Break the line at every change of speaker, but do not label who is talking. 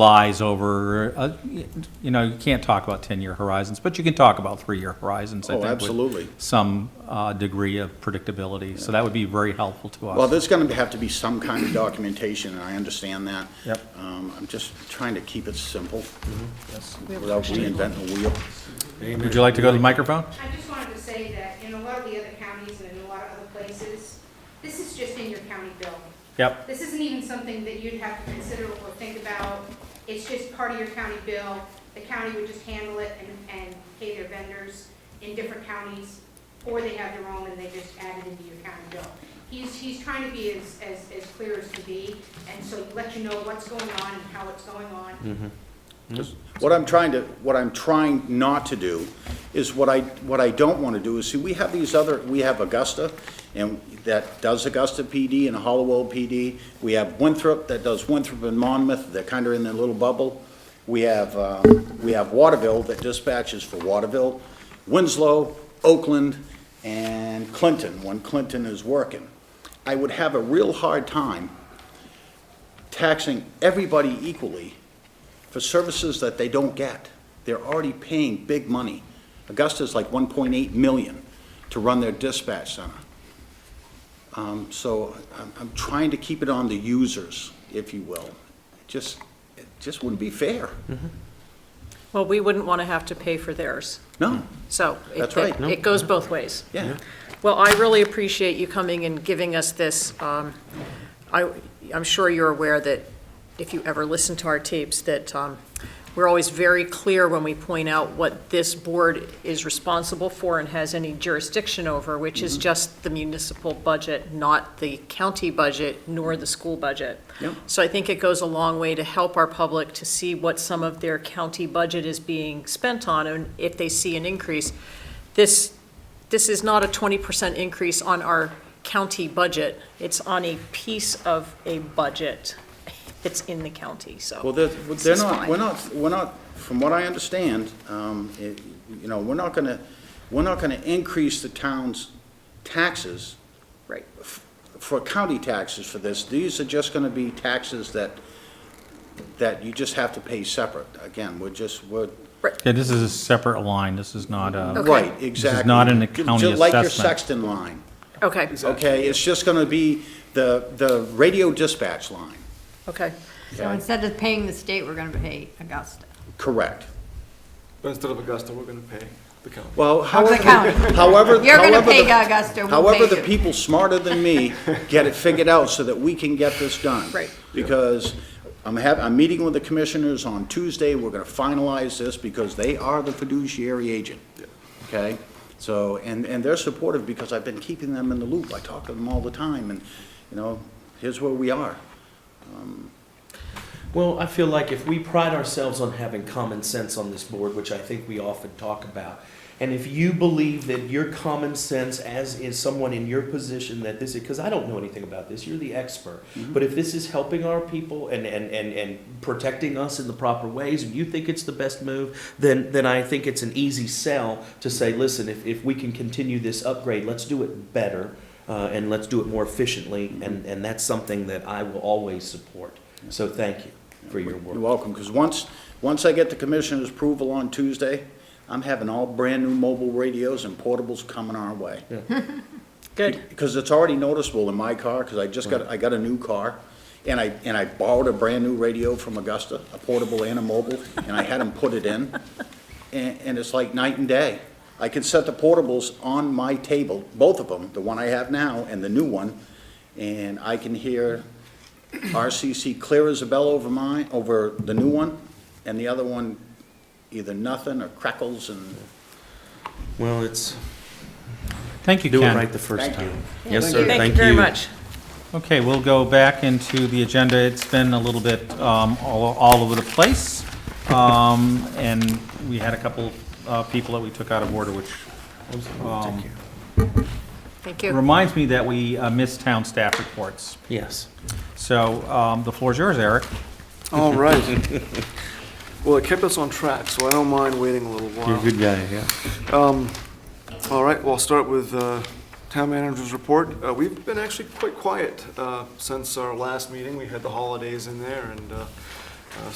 lies over, uh, you know, you can't talk about 10-year horizons, but you can talk about three-year horizons. I
Oh,
think, with
absolutely.
Some uh, degree of predictability, so that would be very helpful to us.
Well, there's going to have to be some kind of documentation, and I understand that.
Yep.
Um, I'm just trying to keep it simple without reinventing the wheel.
Would you like to go to the microphone?
I just wanted to say that in a lot of the other counties and in a lot of other places, this is just in your county bill.
Yep,
This isn't even something that you'd have to consider or think about. It's just part of your county bill. The county would just handle it and, and pay their vendors in different counties, or they have their own and they just add it into your county bill. He's, he's trying to be as, as, as clear as can be, and so let you know what's going on and how it's going on.
What I'm trying to, what I'm trying not to do is what I, what I don't want to do is, see, we have these other, we have Augusta, and that does Augusta PD and Hollowell PD. We have Winthrop that does Winthrop and Monmouth, they're kind of in their little bubble. We have, uh, we have Waterville that dispatches for Waterville, Winslow, Oakland, and Clinton, when Clinton is working. I would have a real hard time taxing everybody equally for services that they don't get. They're already paying big money. Augusta's like 1.8 million to run their dispatch center. Um, So I'm, I'm trying to keep it on the users, if you will. Just, it just wouldn't be fair.
Well, we wouldn't want to have to pay for theirs,
No,
so. it-
That's right.
it- It goes both ways.
yeah.
Well, I really appreciate you coming and giving us this. um, I, I'm sure you're aware that if you ever listen to our tapes, that um, we're always very clear when we point out what this board is responsible for and has any jurisdiction over, which is just the municipal budget, not the county budget, nor the school budget.
Yep.
So I think it goes a long way to help our public to see what some of their county budget is being spent on, and if they see an increase. This, this is not a twenty percent increase on our county budget. It's on a piece of a budget that's in the county, so.
Well, they're,
this
they're
is
not,
fine.
we're not, we're not, from what I understand, um, it- you know, we're not gonna, we're not gonna increase the town's taxes
Right.
for county taxes for this, these are just gonna be taxes that, that you just have to pay separate. Again, we're just, we're,
yeah, this is a separate line, this is not uh, a.
Okay.
right, exactly.
not an
Ju-
county
ju- Like your
assessment.
Sexton line,
Okay,
okay? It's just gonna be the, the radio dispatch line,
okay.
So instead of paying the state, we're gonna pay Augusta.
correct.
But instead of Augusta, we're gonna pay the county.
Well, however,
county.
however, however.
You're gonna
the-
pay Augusta, we'll
However,
pay
the
you.
people smarter than me get it figured out so that we can get this done.
Right.
Because I'm hav I'm meeting with the commissioners on Tuesday, we're gonna finalize this because they are the fiduciary agent. Okay? So, and, and they're supportive because I've been keeping them in the loop, I talk to them all the time, and, you know, here's where we are.
Well, I feel like if we pride ourselves on having common sense on this board, which I think we often talk about, and if you believe that your common sense, as is someone in your position, that this is, because I don't know anything about this, you're the expert. But if this is helping our people and, and, and, and protecting us in the proper ways, and you think it's the best move, then, then I think it's an easy sell to say, listen, if, if we can continue this upgrade, let's do it better. Uh, and let's do it more efficiently, and, and that's something that I will always support. So thank you for your
You're
work.
welcome, because once, once I get the commissioner's approval on Tuesday, I'm having all brand-new mobile radios and portables coming our way.
Good.
Because it's already noticeable in my car, because I just got, I got a new car, and I, and I borrowed a brand-new radio from Augusta, a portable and a mobile, and I had them put it in, and, and it's like night and day. I can set the portables on my table, both of them, the one I have now and the new one, and I can hear RCC clear as a bell over mine, over the new one, and the other one either nothing or crackles and,
Well, it's,
Thank you,
do it
Ken.
right the first
Thank you.
time. Yes, sir,
Thank you very much.
Okay, we'll go back into the agenda. It's been a little bit um, all all over the place. Um, And we had a couple uh, people that we took out of order, which
Thank you.
Thank you.
reminds me that we uh, missed town staff reports.
Yes.
So um, the floor is yours, Eric.
All right. Well, it kept us on track, so I don't mind waiting a little while. You're a good guy, yeah. All right, well, I'll start with uh, Town Manager's Report. Uh, We've been actually quite quiet uh, since our last meeting. We had the holidays in there, and uh, uh,